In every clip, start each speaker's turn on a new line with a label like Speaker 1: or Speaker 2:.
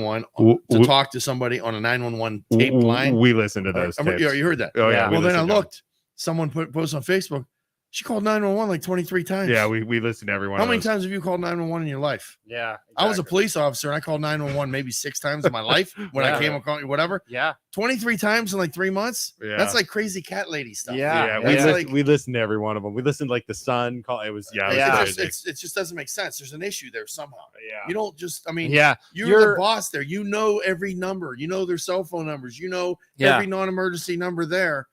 Speaker 1: 911
Speaker 2: W-
Speaker 1: to
Speaker 2: w-
Speaker 1: talk to somebody on a 911
Speaker 2: w-
Speaker 1: tape
Speaker 2: w-
Speaker 1: line.
Speaker 2: We listen to
Speaker 1: Or-
Speaker 2: those.
Speaker 1: I mean, yeah,
Speaker 2: tapes.
Speaker 1: you heard that.
Speaker 2: Oh yeah.
Speaker 3: Yeah.
Speaker 2: we
Speaker 1: well, then I
Speaker 2: listen to 'em.
Speaker 1: looked. Someone put posted on Facebook. She called 911 like 23 times.
Speaker 2: Yeah, we we listen to everyone.
Speaker 1: How many times have you called 911 in your life?
Speaker 3: Yeah.
Speaker 1: I was a
Speaker 3: exactly.
Speaker 1: police officer and I called 911 maybe six times in my life when I
Speaker 3: Yeah.
Speaker 1: came across whatever.
Speaker 3: Yeah.
Speaker 1: 23 times in like three months.
Speaker 2: Yeah.
Speaker 1: That's like crazy cat lady stuff.
Speaker 3: Yeah.
Speaker 2: Yeah,
Speaker 3: Yeah.
Speaker 2: we
Speaker 3: yeah.
Speaker 2: listen-
Speaker 1: like-
Speaker 4: we listened to every one of them. We listened to, like the Sun call. It was
Speaker 2: Yeah,
Speaker 1: It,
Speaker 2: was
Speaker 3: Yeah.
Speaker 1: just,
Speaker 2: crazy.
Speaker 1: it's, it just doesn't make sense. There's an issue there somehow. You don't just, I mean,
Speaker 3: yeah.
Speaker 1: you're,
Speaker 3: You're-
Speaker 1: the boss there. You know every number. You know their cell phone numbers. You know
Speaker 3: Yeah.
Speaker 1: every non-emergency number there,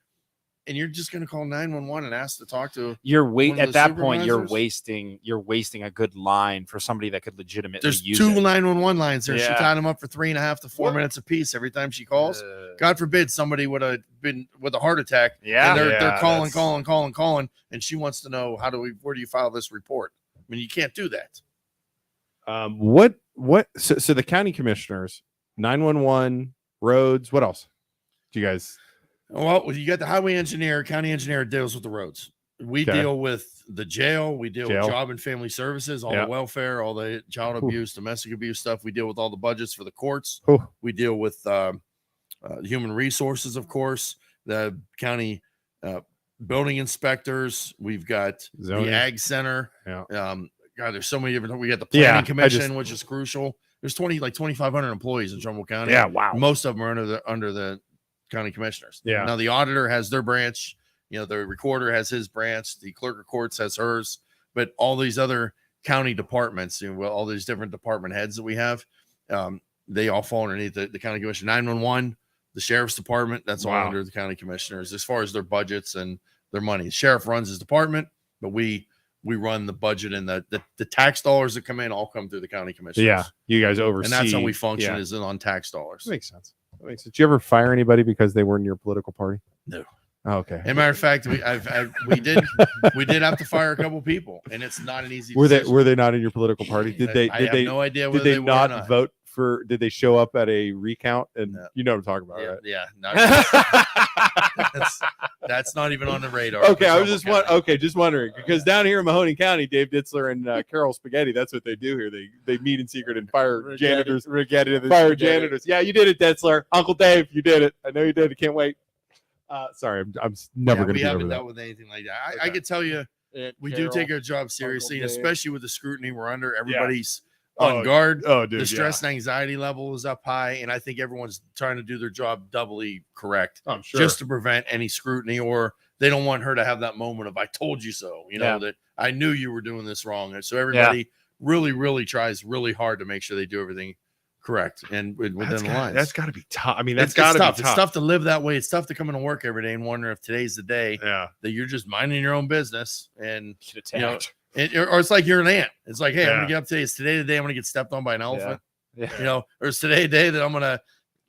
Speaker 1: and you're just going to call 911 and ask to talk to.
Speaker 3: You're wait
Speaker 1: One of
Speaker 3: at
Speaker 1: the
Speaker 3: that point. You're
Speaker 1: supervisors?
Speaker 3: wasting. You're wasting a good line for somebody that could legitimately
Speaker 1: There's
Speaker 3: use
Speaker 1: two
Speaker 3: it.
Speaker 1: 911 lines there. She
Speaker 3: Yeah.
Speaker 1: tied them up for three and a half to four
Speaker 3: What?
Speaker 1: minutes apiece every time she calls.
Speaker 3: Uh,
Speaker 1: God forbid somebody would have been with a heart attack.
Speaker 3: yeah.
Speaker 1: and they're they're
Speaker 2: Yeah,
Speaker 1: calling,
Speaker 2: that's-
Speaker 1: calling, calling, calling, and she wants to know how do we where do you file this report? I mean, you can't do that.
Speaker 4: Um, what what? So, so the county commissioners, nine one one, roads. What else? Do you guys?
Speaker 1: Well, you got the highway engineer, county engineer deals with the roads. We
Speaker 4: Okay.
Speaker 1: deal with the jail. We deal
Speaker 4: Jail.
Speaker 1: with job and family services, all
Speaker 4: Yeah.
Speaker 1: the welfare, all the child
Speaker 4: Whew.
Speaker 1: abuse, domestic abuse stuff. We deal with all the budgets for the courts.
Speaker 4: Whew.
Speaker 1: We deal with um, uh, human resources, of course, the county uh, building inspectors. We've got
Speaker 4: Zoning.
Speaker 1: the ag center.
Speaker 4: Yeah.
Speaker 1: Um, God, there's so many different. We got the planning
Speaker 4: Yeah, I
Speaker 1: commission,
Speaker 4: just-
Speaker 1: which is crucial. There's 20 like 2,500 employees in Trumbull County.
Speaker 2: Yeah. Wow.
Speaker 1: Most of them are under the under the county commissioners.
Speaker 4: Yeah.
Speaker 1: Now the auditor has their branch. You know, the recorder has his branch. The clerk of courts has hers. But all these other county departments, you know, well, all these different department heads that we have, um, they all fall underneath the, the county commission. 911, the sheriff's department. That's all
Speaker 2: Wow.
Speaker 1: under the county commissioners as far as their budgets and their money. The sheriff runs his department, but we we run the budget and the the, the tax dollars that come in all come through the county commissioners.
Speaker 4: Yeah, you guys oversee.
Speaker 1: And that's how we function
Speaker 4: Yeah.
Speaker 1: is on tax dollars.
Speaker 4: That makes sense. That makes sense. Did you ever fire anybody because they were in your political party?
Speaker 1: No.
Speaker 4: Oh, okay.
Speaker 1: As a matter of fact, we I've, i we did we did have to fire a couple people, and it's not an easy.
Speaker 4: were they
Speaker 1: decision.
Speaker 4: were they not in your political party? Did they
Speaker 1: I
Speaker 4: did
Speaker 1: have
Speaker 4: they
Speaker 1: no idea
Speaker 4: did
Speaker 1: whether
Speaker 4: they,
Speaker 1: they, were or
Speaker 4: not,
Speaker 1: not
Speaker 4: vote for? Did they show up at a recount? And
Speaker 1: No.
Speaker 4: you know what I'm talking about,
Speaker 1: Yeah,
Speaker 4: right?
Speaker 1: yeah not, that's, that's not even on the radar.
Speaker 4: Okay,
Speaker 1: for
Speaker 4: I was
Speaker 1: Trumbull
Speaker 4: just wa-
Speaker 1: County.
Speaker 4: okay, just
Speaker 1: Oh,
Speaker 4: wondering because down here in Mahoney County, Dave Ditzler and uh, Carol Spaghetti, that's what they do here. They they meet in secret and fire janitors,
Speaker 3: Regatta the-
Speaker 4: fire
Speaker 3: regatta.
Speaker 4: janitors. Yeah, you did it, Ditzler, Uncle Dave, you did it. I know you did. I can't wait. Uh, sorry, I'm, I'm s- never
Speaker 1: Yeah, we
Speaker 4: gonna be over
Speaker 1: haven't
Speaker 4: that.
Speaker 1: dealt with anything like that. I, I
Speaker 4: Okay.
Speaker 1: could tell you,
Speaker 3: Aunt
Speaker 1: we
Speaker 3: Carol.
Speaker 1: do take our job seriously, and
Speaker 4: Dave.
Speaker 1: especially with the scrutiny we're under. Everybody's
Speaker 2: Oh,
Speaker 1: on guard.
Speaker 2: Oh, dude.
Speaker 1: the
Speaker 2: yeah.
Speaker 1: stress and anxiety level is up high, and I think everyone's trying to do their job doubly correct.
Speaker 2: I'm sure.
Speaker 1: just to prevent any scrutiny or they don't want her to have that moment of I told you so, you know,
Speaker 3: Yeah.
Speaker 1: that I knew you were doing this wrong. And so everybody really, really tries really hard to make sure they do everything correct and with- within
Speaker 2: that's
Speaker 1: the
Speaker 2: gotta-
Speaker 1: lines.
Speaker 2: that's got to be tough. I mean,
Speaker 1: It's-
Speaker 2: that's
Speaker 1: it's
Speaker 2: got to be
Speaker 1: tough.
Speaker 2: tough.
Speaker 1: It's tough to live that way. It's tough to come into work every day and wonder if today's the day
Speaker 2: Yeah.
Speaker 1: that you're just minding your own business and
Speaker 3: Get
Speaker 1: you know,
Speaker 3: attacked.
Speaker 1: it, or or it's like you're an ant. It's like, hey, I'm
Speaker 2: Yeah.
Speaker 1: gonna get up today. It's today the day I'm gonna get stepped on by an elephant.
Speaker 3: Yeah.
Speaker 1: You know, or it's today the day that I'm gonna,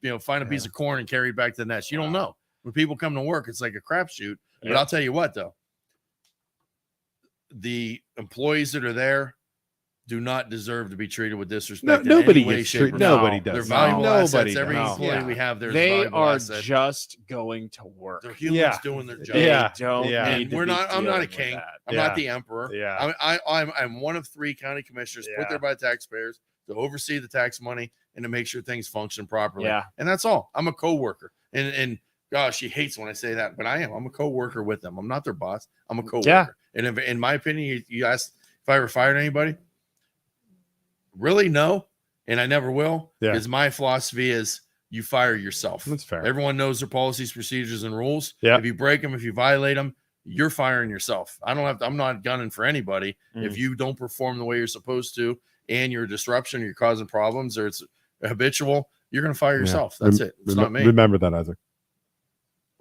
Speaker 1: you know, find a piece
Speaker 4: Yeah.
Speaker 1: of corn and carry it back to the nest. You don't know. When people come to work, it's like a crapshoot. But
Speaker 2: Yeah.
Speaker 1: I'll tell you what, though, the employees that are there do not deserve to be treated with
Speaker 4: No,
Speaker 1: disrespect. in any
Speaker 4: nobody
Speaker 1: way,
Speaker 4: gets
Speaker 1: shape, or
Speaker 4: treated.
Speaker 1: form.
Speaker 4: Nobody
Speaker 3: No,
Speaker 4: does.
Speaker 1: They're valuable
Speaker 4: nobody
Speaker 1: assets. Every
Speaker 4: does.
Speaker 1: employee
Speaker 3: Yeah.
Speaker 1: we have there is a
Speaker 3: They
Speaker 1: valuable
Speaker 3: are
Speaker 1: asset.
Speaker 3: just going to work.
Speaker 1: They're humans
Speaker 4: Yeah.
Speaker 1: doing their job.
Speaker 3: They
Speaker 4: Yeah.
Speaker 3: Don't
Speaker 4: Yeah.
Speaker 3: need
Speaker 1: And
Speaker 3: to
Speaker 1: we're
Speaker 3: be
Speaker 1: not- I'm not
Speaker 3: dealing
Speaker 1: a
Speaker 3: with
Speaker 1: king.
Speaker 3: that.
Speaker 1: I'm
Speaker 2: Yeah.
Speaker 1: not the emperor.
Speaker 2: Yeah.
Speaker 1: I'm, I, I'm I'm one of three county commissioners put
Speaker 2: Yeah.
Speaker 1: there by taxpayers to oversee the tax money and to make sure things function properly.
Speaker 3: Yeah.
Speaker 1: And that's all. I'm a coworker. And and gosh, she hates when I say that, but I am. I'm a coworker with them. I'm not their boss. I'm a coworker.
Speaker 3: Yeah.
Speaker 1: And if, in my opinion, you, you asked if I ever fired anybody. Really, no, and I never will.
Speaker 4: Yeah.
Speaker 1: Because my philosophy is you fire yourself.
Speaker 4: That's fair.
Speaker 1: Everyone knows their policies, procedures, and rules.
Speaker 4: Yeah.
Speaker 1: If you break them, if you violate them, you're firing yourself. I don't have to, I'm not gunning for anybody. If you don't perform the way you're supposed to and you're a disruption, you're causing problems, or it's habitual, you're going to fire
Speaker 4: Yeah.
Speaker 1: yourself.
Speaker 4: Rem-
Speaker 1: That's it. It's
Speaker 4: Remem-
Speaker 1: not me.
Speaker 4: Remember that, Isaac.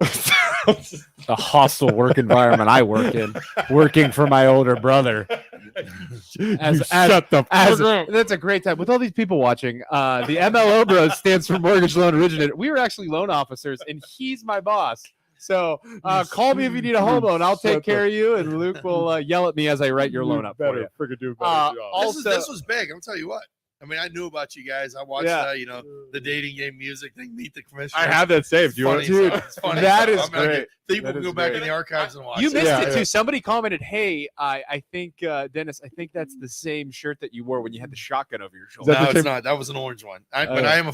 Speaker 3: the hostile work environment I work in, working for my older brother. As-
Speaker 4: you
Speaker 3: as-
Speaker 4: shut the
Speaker 3: As,
Speaker 4: fuck up.
Speaker 3: that's a great time with all these people watching. Uh, the MLO Bros stands for Mortgage Loan Originator. We were actually loan officers, and he's my boss. So uh, call me if you need a home loan. I'll take
Speaker 4: Shut
Speaker 3: care of you, and Luke will uh, yell at me as I write your
Speaker 4: You
Speaker 3: loan up for you.
Speaker 4: Better freaking do a better
Speaker 3: Uh,
Speaker 4: job.
Speaker 3: all-
Speaker 1: This, is,
Speaker 3: also-
Speaker 1: this was big. I'll tell you what. I mean, I knew about you guys. I watched,
Speaker 3: Yeah.
Speaker 1: uh, you know, the dating game music thing, Meet the Commissioner.
Speaker 2: I have that saved. Do you want
Speaker 1: Funny
Speaker 2: to?
Speaker 3: Dude,
Speaker 1: stuff. It's funny
Speaker 3: that
Speaker 1: stuff.
Speaker 3: is
Speaker 1: I mean, I
Speaker 4: great.
Speaker 1: could- People
Speaker 4: That
Speaker 1: can
Speaker 4: is
Speaker 1: go back
Speaker 4: great.
Speaker 1: in the archives and watch.
Speaker 3: You
Speaker 1: it.
Speaker 3: missed
Speaker 4: Yeah,
Speaker 3: it
Speaker 4: yeah.
Speaker 3: too. Somebody commented, "Hey, I, I think uh, Dennis, I think that's the same shirt that you wore when you had the shotgun over your shoulder."
Speaker 4: that the
Speaker 1: No, it's
Speaker 4: same-
Speaker 1: not. That was an orange one. I, but
Speaker 3: Oh.
Speaker 1: I am a